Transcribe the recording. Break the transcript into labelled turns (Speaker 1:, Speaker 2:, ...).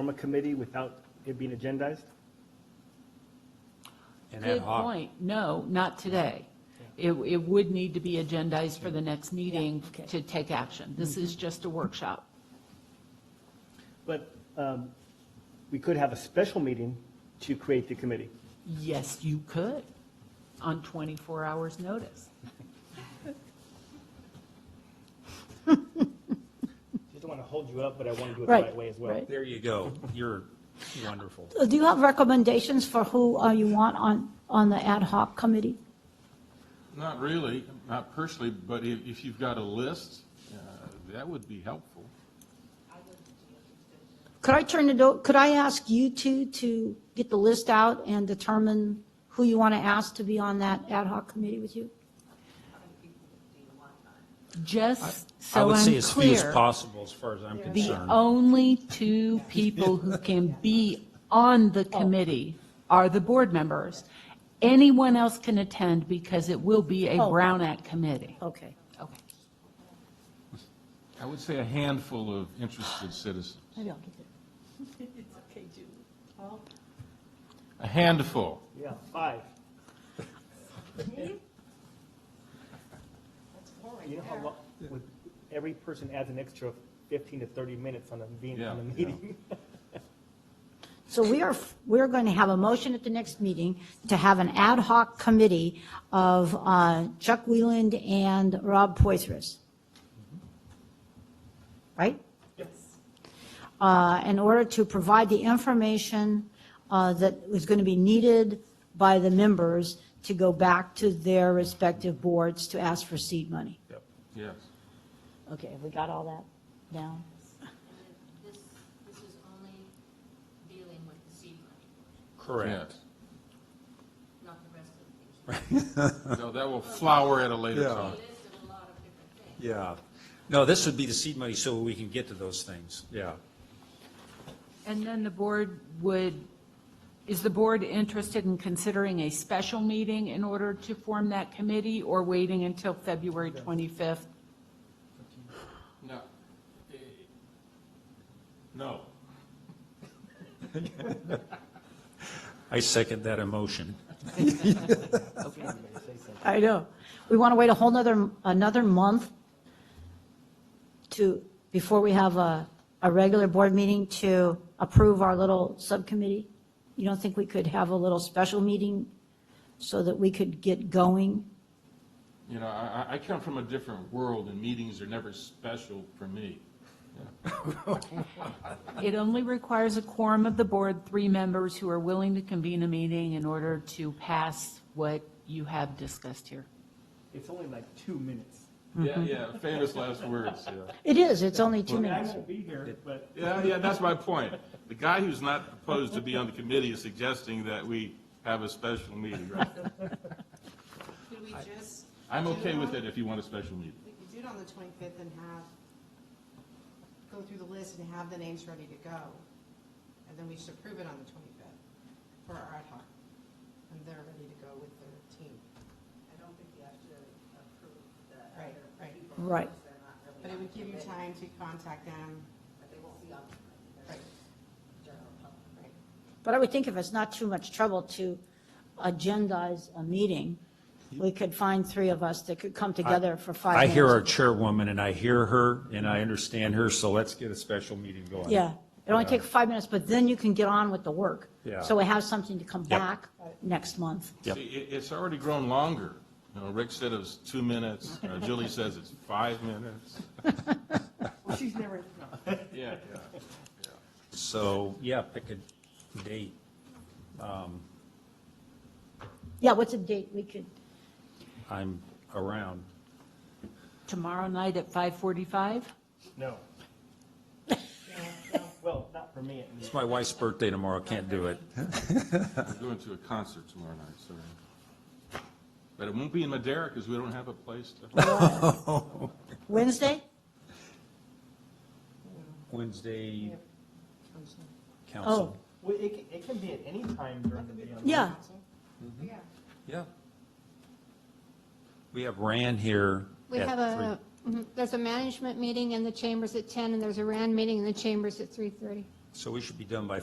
Speaker 1: form a committee without it being agendized?
Speaker 2: And ad
Speaker 3: Good
Speaker 2: hoc.
Speaker 3: point. No, not today. It, it would need to be agendized for the next meeting
Speaker 4: okay.
Speaker 3: to take action. This is just a workshop.
Speaker 1: But um, we could have a special meeting to create the committee.
Speaker 3: Yes, you could, on 24 hours' notice.
Speaker 1: Just don't want to hold you up, but I want to do it the
Speaker 4: Right,
Speaker 1: right way as well.
Speaker 4: right.
Speaker 2: There you go. You're wonderful.
Speaker 4: Uh, Do you have recommendations for who uh, you want on, on the ad hoc committee?
Speaker 5: Not really, not personally, but if, if you've got a list, uh, that would be helpful.
Speaker 4: Could I turn it, o- could I ask you two to get the list out and determine who you want to ask to be on that ad hoc committee with you?
Speaker 3: Just
Speaker 2: I
Speaker 3: so
Speaker 2: would say
Speaker 3: I'm
Speaker 2: as few as
Speaker 3: clear,
Speaker 2: possible, as far as I'm
Speaker 3: the oh.
Speaker 2: concerned.
Speaker 3: only two people who can be on the committee are the board members. Anyone else can attend because it will be a
Speaker 4: Oh.
Speaker 3: Brown Act committee.
Speaker 4: Okay.
Speaker 3: Okay.
Speaker 5: I would say a handful of interested citizens,
Speaker 4: Maybe I'll get it.
Speaker 5: a handful.
Speaker 1: Yeah, five. You know how long, with, every person adds an extra fifteen to thirty minutes on a, being on a
Speaker 5: Yeah, yeah.
Speaker 1: meeting.
Speaker 4: So we are, we're going to have a motion at the next meeting to have an ad hoc committee of uh, Chuck Wieland and Rob Poitras. Right? Yes. In order to provide the information uh, that is going to be needed by the members to go back to their respective boards to ask for seed money.
Speaker 5: Yep. Yes.
Speaker 4: Okay, have we got all that down?
Speaker 6: This, this is only dealing with the seed money,
Speaker 2: Correct.
Speaker 6: not the rest of the things.
Speaker 5: Yes. So that will flower at a later
Speaker 2: Yeah.
Speaker 5: time.
Speaker 6: It is a lot of different
Speaker 2: Yeah.
Speaker 6: things.
Speaker 2: No, this would be the seed money so we can get to those things. Yeah.
Speaker 3: And then the board would, is the board interested in considering a special meeting in order to form that committee or waiting until February 25th?
Speaker 5: No. Eh, No.
Speaker 2: I second that emotion.
Speaker 4: I know. We want to wait a whole nother, another month to, before we have a, a regular board meeting to approve our little subcommittee? You don't think we could have a little special meeting so that we could get going?
Speaker 5: You know, I, I- I come from a different world, and meetings are never special for me.
Speaker 3: It only requires a quorum of the board, three members who are willing to convene a meeting in order to pass what you have discussed here.
Speaker 1: It's only like two minutes.
Speaker 4: Mm-hmm.
Speaker 5: Yeah, yeah, famous last words, yeah.
Speaker 4: It is, it's only
Speaker 1: I
Speaker 4: two
Speaker 1: mean, I
Speaker 4: minutes.
Speaker 1: won't be here, but
Speaker 5: Yeah, yeah, that's my point. The guy who's not proposed to be on the committee is suggesting that we have a special meeting, right?
Speaker 7: Could we just?
Speaker 5: I'm
Speaker 7: do
Speaker 5: okay with
Speaker 7: on-
Speaker 5: it if you want a special meeting.
Speaker 7: We could do it on the twenty-fifth and have, go through the list and have the names ready to go. And then we should approve it on the twenty-fifth for our ad hoc. And they're ready to go with their team.
Speaker 8: I don't think you have to approve the
Speaker 7: Right,
Speaker 8: other
Speaker 7: right.
Speaker 8: people.
Speaker 4: Right.
Speaker 8: because they're not really
Speaker 7: But it
Speaker 8: on
Speaker 7: would give you
Speaker 8: committee,
Speaker 7: time to contact them.
Speaker 8: But they won't be on the committee. They're
Speaker 7: Right.
Speaker 8: general public.
Speaker 7: Right.
Speaker 4: But I would think if it's not too much trouble to agendize a meeting, we could find three of us that could come together for five
Speaker 2: I
Speaker 4: minutes.
Speaker 2: hear our chairwoman and I hear her and I understand her, so let's get a special meeting going.
Speaker 4: Yeah, it only
Speaker 2: Yeah.
Speaker 4: takes five minutes, but then you can get on with the work.
Speaker 2: Yeah.
Speaker 4: So we have something to come
Speaker 2: Yep.
Speaker 4: back next month.
Speaker 2: Yep.
Speaker 5: See, it, it's already grown longer. You know, Rick said it was two minutes, uh, Julie says it's five minutes.
Speaker 7: Well, she's never,
Speaker 5: Yeah, yeah.
Speaker 2: So, yeah, pick a date.
Speaker 4: Yeah, what's a date we could,
Speaker 2: I'm around.
Speaker 3: Tomorrow night at 5:45?
Speaker 1: no. Well, not for me at least.
Speaker 2: It's my wife's birthday tomorrow, can't do it.
Speaker 5: I'm going to a concert tomorrow night, sorry. But it won't be in Madera because we don't have a place to.
Speaker 4: Wednesday?
Speaker 2: Wednesday,
Speaker 4: Oh,
Speaker 3: Oh.
Speaker 2: council.
Speaker 1: Well, it, can- it can be at any time during the day. on the-
Speaker 4: yeah,
Speaker 7: yeah.
Speaker 2: Yeah. We have Rand here
Speaker 9: We
Speaker 2: at
Speaker 9: have a,
Speaker 2: three.
Speaker 9: mhm, there's a management meeting in the chambers at 10, and there's a RAND meeting in the chambers at 3:30.
Speaker 2: So we should be done by